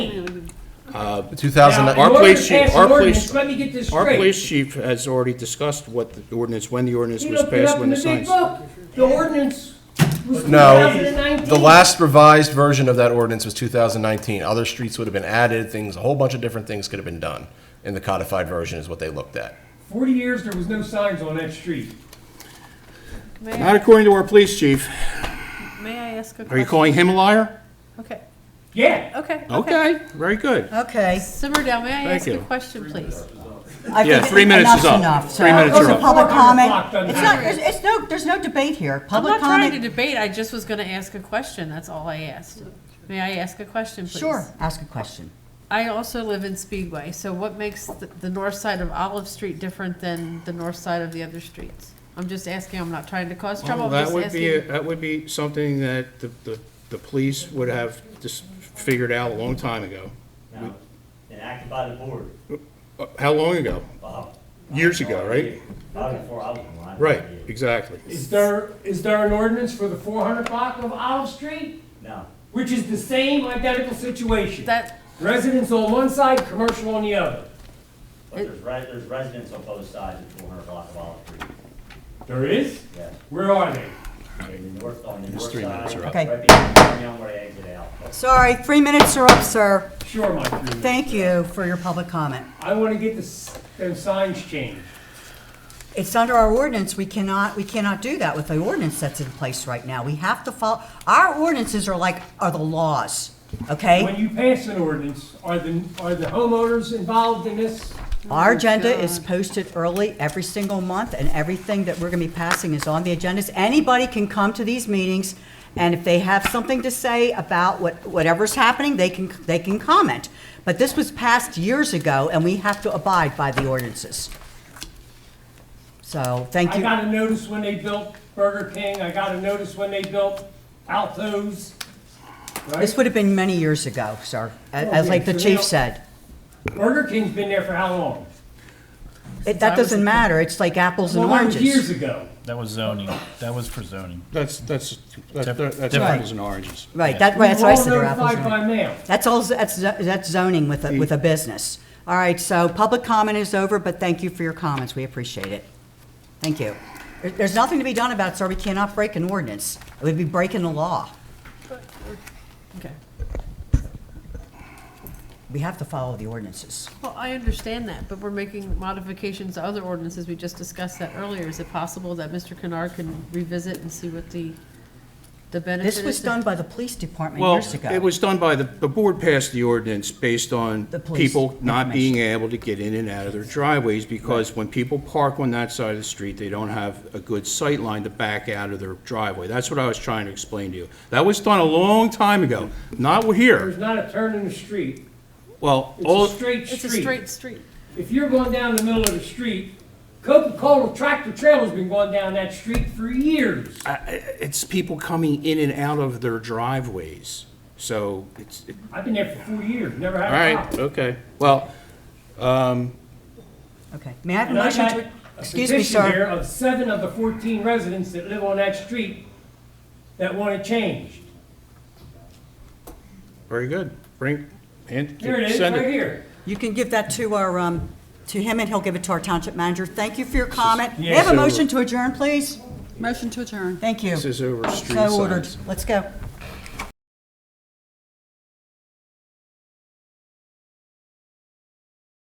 Our 2009, Now, in order to police chief- pass an our police- ordinance, Let me get this Our straight. police chief has already discussed what the ordinance, when the ordinance You was don't put it passed, up in when the the big signs. book. The ordinance was no, 2019. the last revised version of that ordinance was 2019. Other streets would have been added, things, a whole bunch of different things could have been done in the codified version is what they looked at. Forty years, there was no signs on that street. May Not I, according to our police chief. may I ask a question? Are you calling him a liar? Okay, Yeah, okay, okay. Okay, very good. Okay. Simmer down, may I Thank ask a you. question, please? I Yeah, think three minutes enough's is up. enough. So Three minutes those are up. Public Clock doesn't comment. It's not, matter. there's, it's no, there's no debate here. I'm Public not trying to comment. debate, I just was gonna ask a question, that's all I asked. May I ask a question, please? Sure, ask a question. I also live in Speedway, so what makes the, the north side of Olive Street different than the north side of the other streets? I'm just asking, I'm not trying to cause trouble, Well, I'm That just would be, asking. that would be something that the, the, the police would have just figured out a long time ago. No, enacted by the board, Uh, How long ago? Bob. Years ago, right? Probably before I was alive. Right, exactly. is there, is there an ordinance for the four hundred block of Olive Street? No, Which is the same identical situation. That, Residents on one side, commercial on the other. but there's re, there's residents on both sides of four hundred block of Olive Street, There is? yes. Where are they? On the north, on the north three minutes side, are up. Okay. right behind the town where they exit out. Sorry, three minutes are up, sir. Sure, my friend. Thank you for your public comment. I wanna get this, them signs changed. It's under our ordinance. We cannot, we cannot do that with the ordinance that's in place right now. We have to follow, our ordinances are like, are the laws, okay? When you pass an ordinance, are the, are the homeowners involved in this? Oh, Our agenda is posted early every single month, and everything that we're gonna be passing is on the agendas. Anybody can come to these meetings, and if they have something to say about what, whatever's happening, they can, they can comment. But this was passed years ago, and we have to abide by the ordinances. So, thank I you. got a notice when they built Burger King, I got a notice when they built Alto's. This Right? would have been many years ago, sir, a- Oh, as yeah, like the so chief now- said. Burger King's been there for how long? It- That doesn't matter, it's like apples and Well, that was Years oranges. ago. That was zoning. That was for zoning. That's, that's, that- that- that's Different. apples and oranges. Right, that, right, that's what I said, We they're were all apples and notified oranges. by mail. That's all, that's, that's zoning with a, with a business. All right, so public comment is over, but thank you for your comments, we appreciate it. Thank you. There- There's nothing to be done about it, sir, we cannot break an ordinance. It would be breaking the law. okay. We have to follow the ordinances. Well, I understand that, but we're making modifications to other ordinances, we just discussed that earlier. Is it possible that Mr. Kennard can revisit and see what the, the benefit is? This was if- done by the police department Well, years ago. it was done by the, the board passed the ordinance based on The police people not being able to get in and out of their driveways because when people park on that side of the street, they don't have a good sight line to back out of their driveway. That's what I was trying to explain to you. That was done a long time ago, not here. There's not a turn in the street. Well, all, It's a straight It's a street. straight street. If you're going down the middle of the street, Coca-Cola tractor trailer's been going down that street for years. I- I- it's people coming in and out of their driveways. So it's, it- I've been there for four years, never all had a right, problem. okay. Well, Okay, may I have a And I motion got to, a excuse me, petition here sir? of seven of the 14 residents that live on that street that want it changed. very good. Bring, and, Here it is, send right here. You can give that to our, um, to him, and he'll give it to our township manager. Thank you for your comment. May I have a so- motion to adjourn, please? Motion to adjourn. Thank you. This is over street So ordered. signs. Let's go.